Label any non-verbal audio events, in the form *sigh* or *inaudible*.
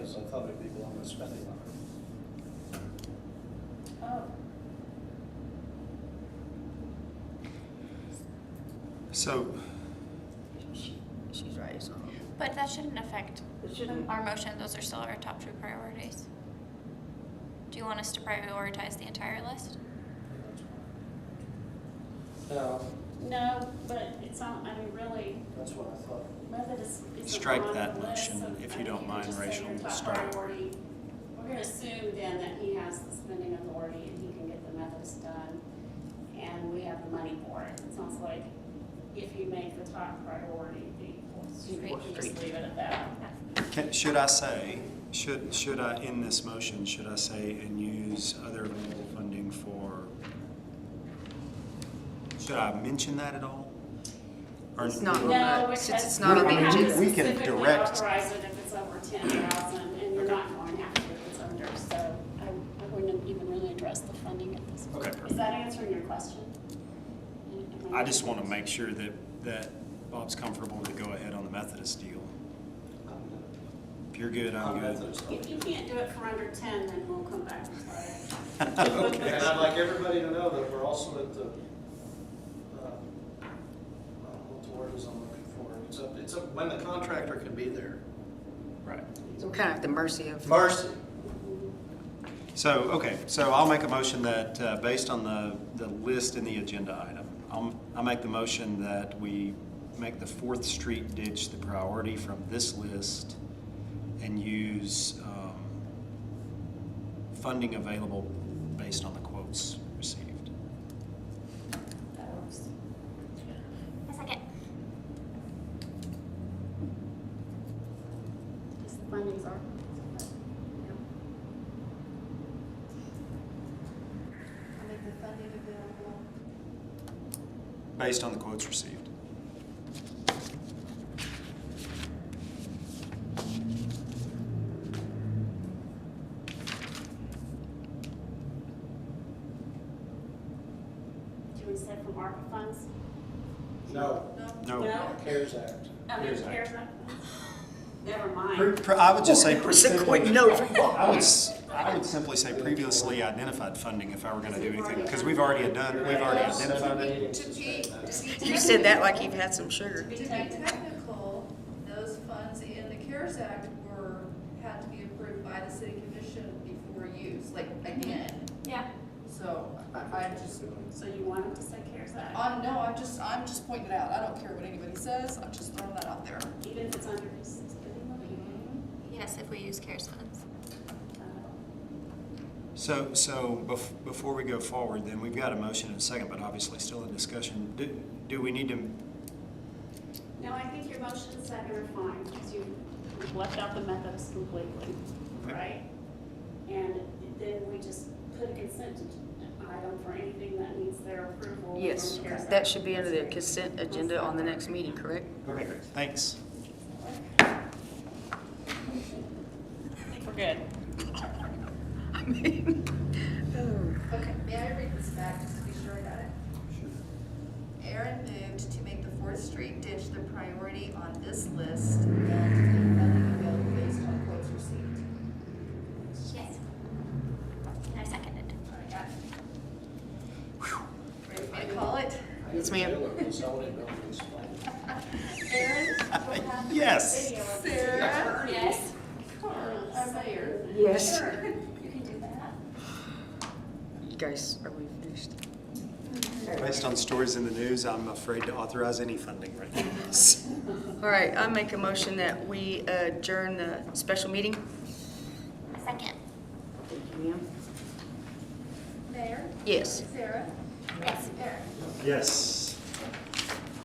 publicly belong to spending limit. Oh, So, She- She's right, so. But that shouldn't affect It shouldn't, our motion. Those are still our top two priorities. Do you want us to prioritize the entire list? That's fine. No, no, but it's on, I mean, really, that's what I thought. whether this is. Strike on that the list, motion, so- if I you mean, don't could mind, just say Rachel, your to top start. priority. We're gonna assume then that he has the spending authority and he can get the methods done, and we have the money for it. It sounds like if you make the top priority the Fourth Street, Fourth you just Street. leave it at that. can, should I say, should, should I, in this motion, should I say and use other available funding for? Should I mention that at all? Or- It's not No, on the, because. since it's not on We- the we- agenda. we can specifically direct- Authorize it if it's over ten thousand, and you're not going after if it's under, so I, I wouldn't even really address the funding at this point. Okay, Is perfect. that answering your question? Am I just want to make sure that, that Bob's comfortable with the go-ahead on the Methodist deal. If you're good, I'm *laughs* good. Methodist. If you can't do it for under ten, then we'll come back and try it. Okay. And I'd like everybody to know that we're also at the, uh, I don't know what the word is I'm looking for. It's a, it's a, when the contractor can be there. Right. So we're kind of at the mercy of. Mercy. So, okay, so I'll make a motion that, uh, based on the, the list in the agenda item, I'll, I'll make the motion that we make the Fourth Street ditch the priority from this list and use, um, funding available based on the quotes received. That works. A second. Because the funding's are. I'll make the funding available. Based on the quotes received. Do we set from ARPA funds? No. No. CARES Act. I mean, Here's that. CARES Act funds? Never mind. Pre- pre- I would just say. *laughs* It's a quick note from Bob. I would, s- I would simply say previously identified funding if I were gonna do anything, because we've already done, we've already identified it. To be, to be. You said that like you've technical- had some sugar. To be technical, those funds in the CARES Act were, had to be approved by the city commission before use, like, again. Yeah. So I, I just, So you wanted to say CARES Act, I, no, I'm just, I'm just pointing it out. I don't care what anybody says. I'm just throwing that out there. even if it's under his spending limit? Mm-hmm. Yes, if we use CARES funds. Uh, So, so bef- before we go forward, then we've got a motion and a second, but obviously still in discussion. Do, do we need to, No, I think your motion and second are fine, because you left out the methods completely, right? And then we just put a consent item for anything that needs their approval. Yes, from CARES that Act. should be under the consent agenda on the next meeting, correct? okay, thanks. We're good. I mean, oh. Okay, may I read this back just to be sure I got it? Aaron moved to make the Fourth Street ditch the priority on this list and to make funding available based on quotes received. Yes. I seconded. All right, got it. Ready for me to call it? Yes, ma'am. Aaron? Yes. Sarah? Yes. Carl, I'm here. Yes. *laughs* Sure. You can do that. You guys, are we finished? Based on stories in the news, I'm afraid to authorize any funding right now. All right, I make a motion that we adjourn the special meeting. A second. Thank you, ma'am. Mayor? Yes. Sarah? Yes. Aaron? Yes.